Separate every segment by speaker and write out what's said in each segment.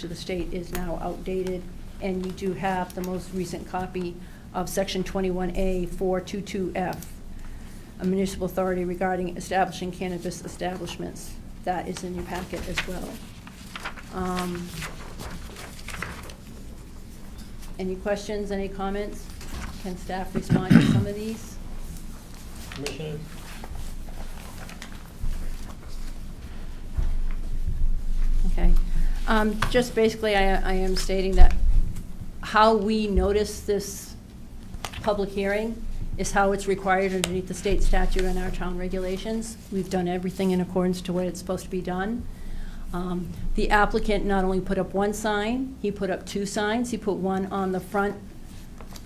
Speaker 1: to the state is now outdated, and you do have the most recent copy of Section 21A 422F, a municipal authority regarding establishing cannabis establishments. That is in your packet as well. Um, Any questions, any comments? Can staff respond to some of these?
Speaker 2: Commissioners?
Speaker 1: Okay. Um, Just basically, I I am stating that how we notice this public hearing is how it's required underneath the state statute and our town regulations. We've done everything in accordance to what it's supposed to be done. Um, The applicant not only put up one sign, he put up two signs. He put one on the front,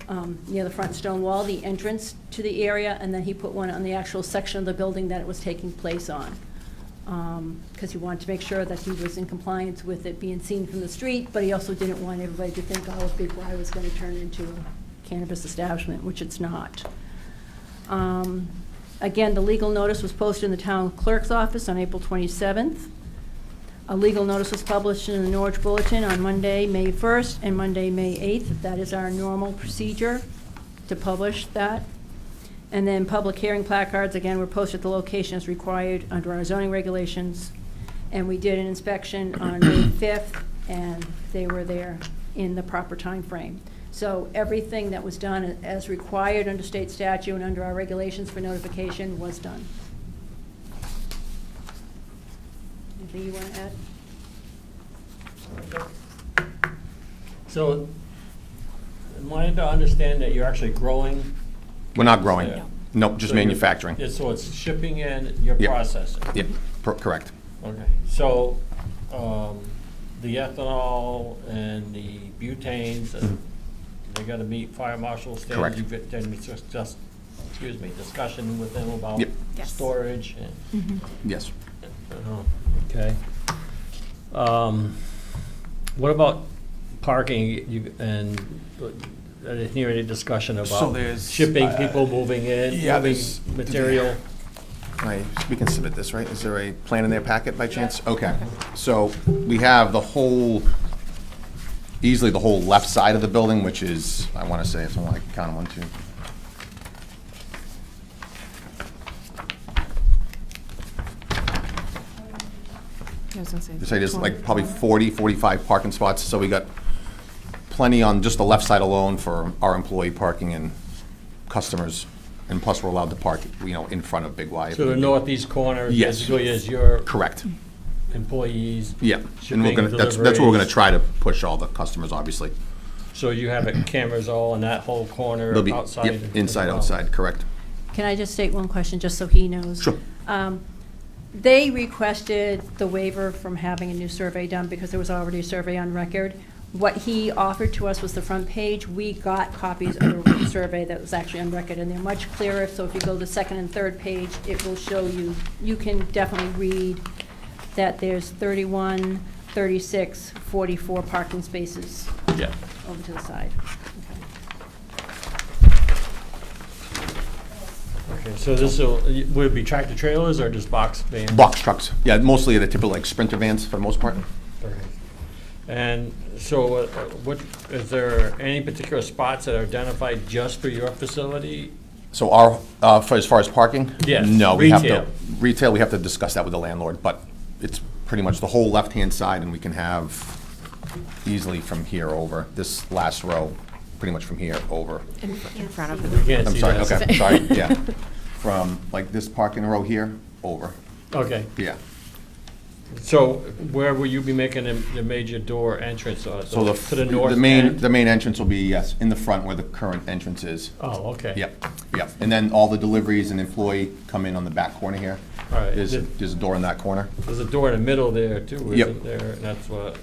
Speaker 1: um, near the front stone wall, the entrance to the area, and then he put one on the actual section of the building that it was taking place on because um, he wanted to make sure that he was in compliance with it being seen from the street, but he also didn't want everybody to think, oh, Big Y was going to turn into a cannabis establishment, which it's not. Um, Again, the legal notice was posted in the town clerk's office on April 27th. A legal notice was published in the Norwich Bulletin on Monday, May 1st, and Monday, May 8th. That is our normal procedure to publish that. And then public hearing placards, again, were posted at the location as required under our zoning regulations. And we did an inspection on May 5th, and they were there in the proper time frame. So everything that was done as required under state statute and under our regulations for notification was done. Anything you want to add?
Speaker 2: So, am I to understand that you're actually growing?
Speaker 3: We're not growing.
Speaker 2: Yeah.
Speaker 3: Nope, just
Speaker 2: So you're-
Speaker 3: manufacturing.
Speaker 2: Yeah, So it's shipping in, you're
Speaker 3: Yeah.
Speaker 2: processing?
Speaker 3: Yep, per- correct.
Speaker 2: Okay, so, um, the ethanol and the butanes, and they gotta meet fire marshal standards?
Speaker 3: Correct.
Speaker 2: You've got- Then it's just, just, excuse me, discussion with them about
Speaker 3: Yep.
Speaker 4: Yes.
Speaker 2: storage and?
Speaker 3: Yes.
Speaker 2: Oh, Okay. Um, What about parking You- and uh, I didn't hear any discussion
Speaker 5: So
Speaker 2: about
Speaker 5: there's,
Speaker 2: shipping,
Speaker 5: uh,
Speaker 2: people moving in,
Speaker 3: yeah,
Speaker 2: moving
Speaker 3: there's-
Speaker 2: material?
Speaker 3: I- We can submit this, right? Is there a plan in their packet by chance? Okay. So we have the whole, easily the whole left side of the building, which is, I want to say, if I want to count them, one, two.
Speaker 4: I was gonna say.
Speaker 3: Say there's like probably 40, 45 parking spots. So we got plenty on just the left side alone for our employee parking and customers. And plus, we're allowed to park, you know, in front of Big Y. if
Speaker 2: So the
Speaker 3: need be.
Speaker 2: northeast corner
Speaker 3: Yes.
Speaker 2: basically is your
Speaker 3: Correct.
Speaker 2: employees?
Speaker 3: Yeah, and we're
Speaker 2: shipping,
Speaker 3: gonna, that's, that's what we're gonna
Speaker 2: deliveries.
Speaker 3: try to push all the customers, obviously.
Speaker 2: So you have it cameras all in that whole corner
Speaker 3: They'll be,
Speaker 2: outside?
Speaker 3: yep,
Speaker 2: as
Speaker 3: inside,
Speaker 2: well.
Speaker 3: outside, correct.
Speaker 1: Can I just state one question, just so he knows?
Speaker 3: Sure.
Speaker 1: Um, They requested the waiver from having a new survey done because there was already a survey on record. What he offered to us was the front page. We got copies of the survey that was actually on record, and they're much clearer. So if you go to the second and third page, it will show you, you can definitely read that there's 31, 36, 44 parking spaces
Speaker 2: Yeah.
Speaker 1: over to the side.
Speaker 2: Okay, so this will, would it be tractor trailers or just box vans?
Speaker 3: Box trucks, yeah, mostly the typical like Sprinter vans for the most part.
Speaker 2: Okay. And so uh, what, is there any particular spots that are identified just for your facility?
Speaker 3: So our, uh, for as far as parking?
Speaker 2: Yes,
Speaker 3: No, we have
Speaker 2: retail.
Speaker 3: to, retail, we have to discuss that with the landlord, but it's pretty much the whole left-hand side and we can have easily from here over, this last row, pretty much from here over.
Speaker 4: In fr- in front of
Speaker 2: You
Speaker 4: them.
Speaker 2: can't
Speaker 3: I'm
Speaker 2: see
Speaker 3: sorry,
Speaker 2: that.
Speaker 3: okay, sorry, yeah. From like this parking row here, over,
Speaker 2: Okay,
Speaker 3: yeah.
Speaker 2: so where will you be making the the major door entrance? uh,
Speaker 3: So the,
Speaker 2: To the north
Speaker 3: the main,
Speaker 2: end?
Speaker 3: the main entrance will be, yes, in the front where the current entrance is.
Speaker 2: Oh, okay.
Speaker 3: Yep, yep. And then all the deliveries and employee come in on the back corner here.
Speaker 2: All right.
Speaker 3: There's, a- there's a door in that corner.
Speaker 2: There's a door in the middle there too,
Speaker 3: Yep.
Speaker 2: isn't there? And That's what,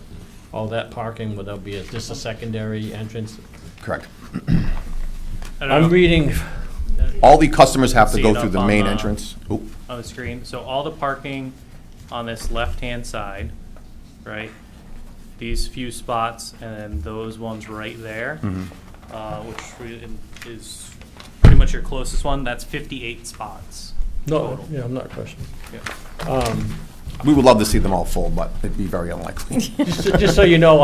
Speaker 2: all that parking, will there be a- just a secondary entrance?
Speaker 3: Correct.
Speaker 6: Uh,
Speaker 2: I'm reading,
Speaker 3: All the customers have to
Speaker 6: See
Speaker 3: go
Speaker 6: it
Speaker 3: through
Speaker 6: up
Speaker 3: the
Speaker 6: on
Speaker 3: main
Speaker 6: the-
Speaker 3: entrance. Oop,
Speaker 6: on the screen. So all the parking on this left-hand side, right? These few spots and then those ones right there,
Speaker 2: Mm-hmm.
Speaker 6: uh, which re- is pretty much your closest one. That's 58 spots.
Speaker 2: no, yeah, I'm not questioning.
Speaker 6: Yeah.
Speaker 2: Um,
Speaker 3: we would love to see them all full, but it'd be very unlikely.
Speaker 2: Just just so you know,